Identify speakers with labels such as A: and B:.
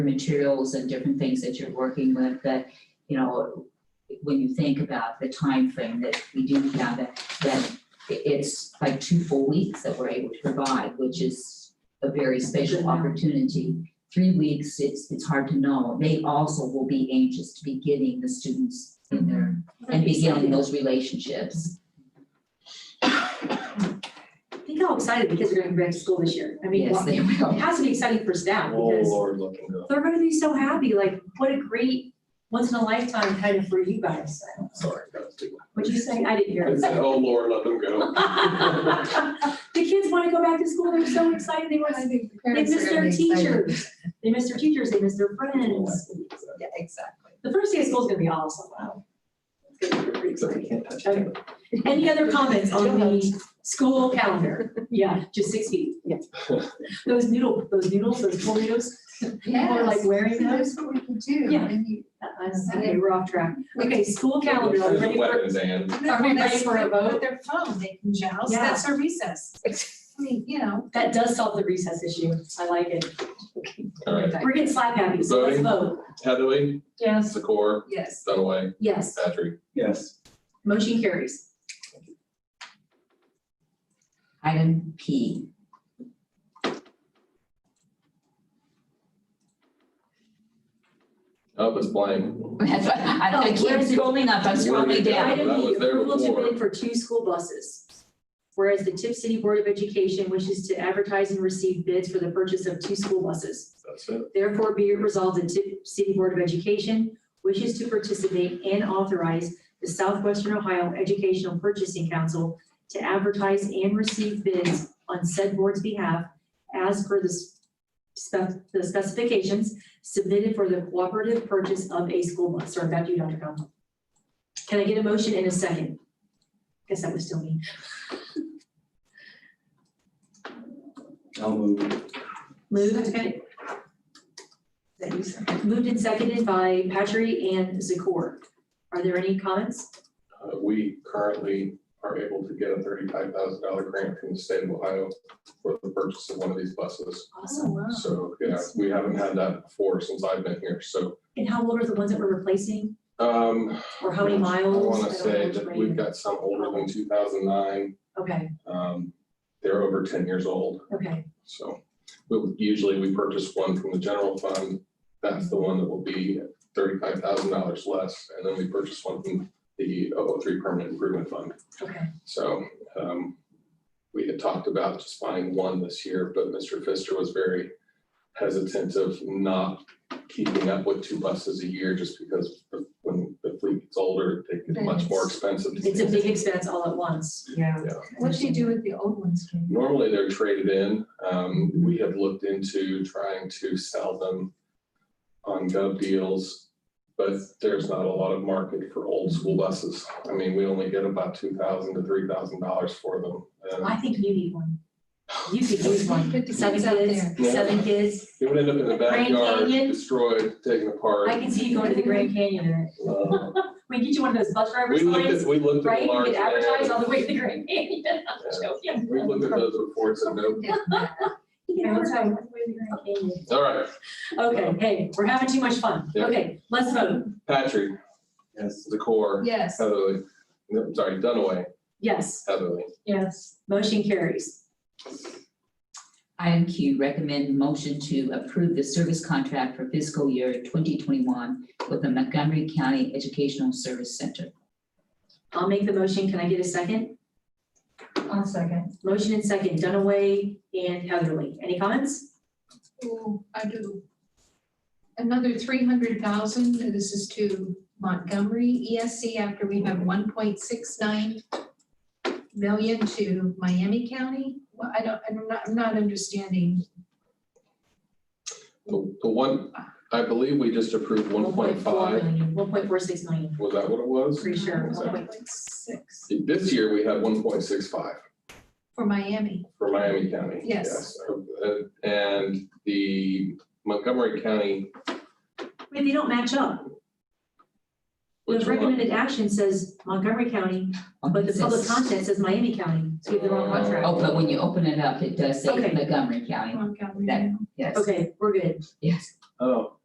A: materials and different things that you're working with that, you know, when you think about the time frame that we do have, that, that i- it's like two full weeks that we're able to provide, which is a very special opportunity. Three weeks, it's, it's hard to know. They also will be anxious to be getting the students in there
B: Mm-hmm.
A: and beginning those relationships.
B: Think how excited the kids are gonna be back to school this year. I mean,
A: Yes,
B: well,
A: they
B: it
A: will.
B: has to be exciting for staff
C: Oh,
B: because
C: Lord, looking good.
B: they're gonna be so happy, like, what a great once in a lifetime kind of for you guys.
C: Sorry, that was too
B: What'd you say? I didn't hear
C: loud. I
B: it.
C: said, oh, Lord, let them go.
B: The kids wanna go back to school. They're so excited. They want,
D: I think the
B: they
D: parents are
B: miss their
D: gonna be excited.
B: teachers. They miss their teachers. They miss their friends.
D: Yeah, exactly.
B: The first day of school is gonna be awesome. Wow. It's gonna be pretty
C: Except we
B: exciting.
C: can't touch
B: Okay.
C: it.
B: Any other comments on the school calendar? Yeah, just six feet. Those noodle, those noodles, those tornadoes, people are like wearing
D: See,
B: those.
D: That's what we could do.
B: Yeah.
D: and you-
B: Uh-uh, Okay, we're off track. Okay, school calendar, are we
C: There's a
B: ready for,
C: weapons and
B: Are we ready for a vote?
D: With Their phone, they can joust,
B: Yeah.
D: that's our recess. I mean, you know.
B: that does solve the recess issue. I like it.
C: All right.
B: We're getting slap happy, so let's
C: Voting?
B: vote.
C: Heatherly,
D: Yes.
C: Secor,
D: Yes.
C: Dunaway,
B: Yes,
C: Patrick.
E: Yes.
B: motion carries.
A: Item P,
C: Oh, it's blank.
A: That's why I, I keep scrolling up, I'm scrolling down.
B: Item
C: that
B: B,
C: was there
B: approval to
C: before.
B: bid for two school buses. Whereas the Tip City Board of Education wishes to advertise and receive bids for the purchase of two school buses.
C: That's it.
B: Therefore, be it resolved, the Tip City Board of Education wishes to participate and authorize the Southwestern Ohio Educational Purchasing Council to advertise and receive bids on said board's behalf as per the s- spec- the specifications submitted for the cooperative purchase of a school bus. Sorry, back to you, Dr. Conklin. Can I get a motion in a second? Guess that was still me.
E: I'll move.
B: Moved,
D: That you said.
B: moved and seconded by Patry and Zakor. Are there any comments?
C: Uh, we currently are able to get a thirty-five thousand dollar grant from the state of Ohio for the purchase of one of these buses.
B: Awesome.
D: Oh, wow.
C: So, yeah, we haven't had that before since I've been here, so,
B: And how old are the ones that we're replacing,
C: um.
B: or how many
C: I
B: miles? I
C: wanna
B: don't
C: say
B: know which
C: that
B: brand.
C: we've got some older than two thousand nine,
B: Okay,
C: um, they're over ten years old.
B: okay,
C: So we would- usually we purchase one from the general fund. That's the one that will be thirty-five thousand dollars less. And then we purchase one from the 003 Permanent Improvement Fund.
B: okay,
C: So um, we had talked about just buying one this year, but Mr. Pfister was very hesitant of not keeping up with two buses a year just because of when the fleet gets older, they get much more expensive.
B: it's a big expense all at once.
D: Yeah.
C: Yeah.
D: What do you do with the old ones? Kim?
C: Normally they're traded in. Um, we have looked into trying to sell them on gov deals. But there's not a lot of market for old school buses. I mean, we only get about two thousand to three thousand dollars for them. And
B: I think you need one. You could use one,
D: Good to see
B: seven
D: it's out there.
B: kids, seven kids,
C: It would end up in the
B: Grand
C: backyard,
B: Canyon?
C: destroyed, taken apart.
B: I can see you going to the Grand Canyon in it.
C: Uh,
B: We can get you one of those bus driver
C: We looked
B: signs,
C: at, we looked at
B: right,
C: the
B: you
C: large.
B: could advertise all
C: vans.
B: the way to the Grand Canyon, I'm just joking.
C: We looked at those reports and no,
B: You can advertise all the way to the Grand Canyon.
C: all right,
B: Okay, hey, we're having too much fun,
C: Yeah.
B: okay, let's vote,
C: Patrick,
E: Yes.
C: the core,
D: Yes.
C: Heatherly, no, sorry, Dunaway,
B: yes,
C: Heatherly.
D: Yes.
B: motion carries.
A: Item Q, recommend motion to approve the service contract for fiscal year twenty twenty-one with the Montgomery County Educational Service Center.
B: I'll make the motion. Can I get a second?
D: I'll second.
B: Motion and second, Dunaway and Heatherly. Any comments?
D: Ooh, I do. Another three hundred thousand, this is to Montgomery ESC after we have one point six nine million to Miami County. Well, I don't, I'm not, I'm not understanding.
C: The the one, I believe we just approved one point five,
B: One point four six million,
C: was that what it was?
B: pretty sure.
C: One
D: One
C: second.
D: point six
C: This year, we had one point six five
D: for Miami.
C: for Miami County.
D: Yes.
C: Uh, And the Montgomery County,
B: Wait, they don't match up. The
C: which one?
B: recommended action says Montgomery County, but the public content says Miami County. So we have the wrong
C: Oh.
B: contract.
A: Oh, but when you open it up, it does say
B: Okay. Mm-hmm.
A: Montgomery County.
D: Montgomery.
A: That-
B: Yes,
A: Okay, we're good.
B: yes.
E: Oh,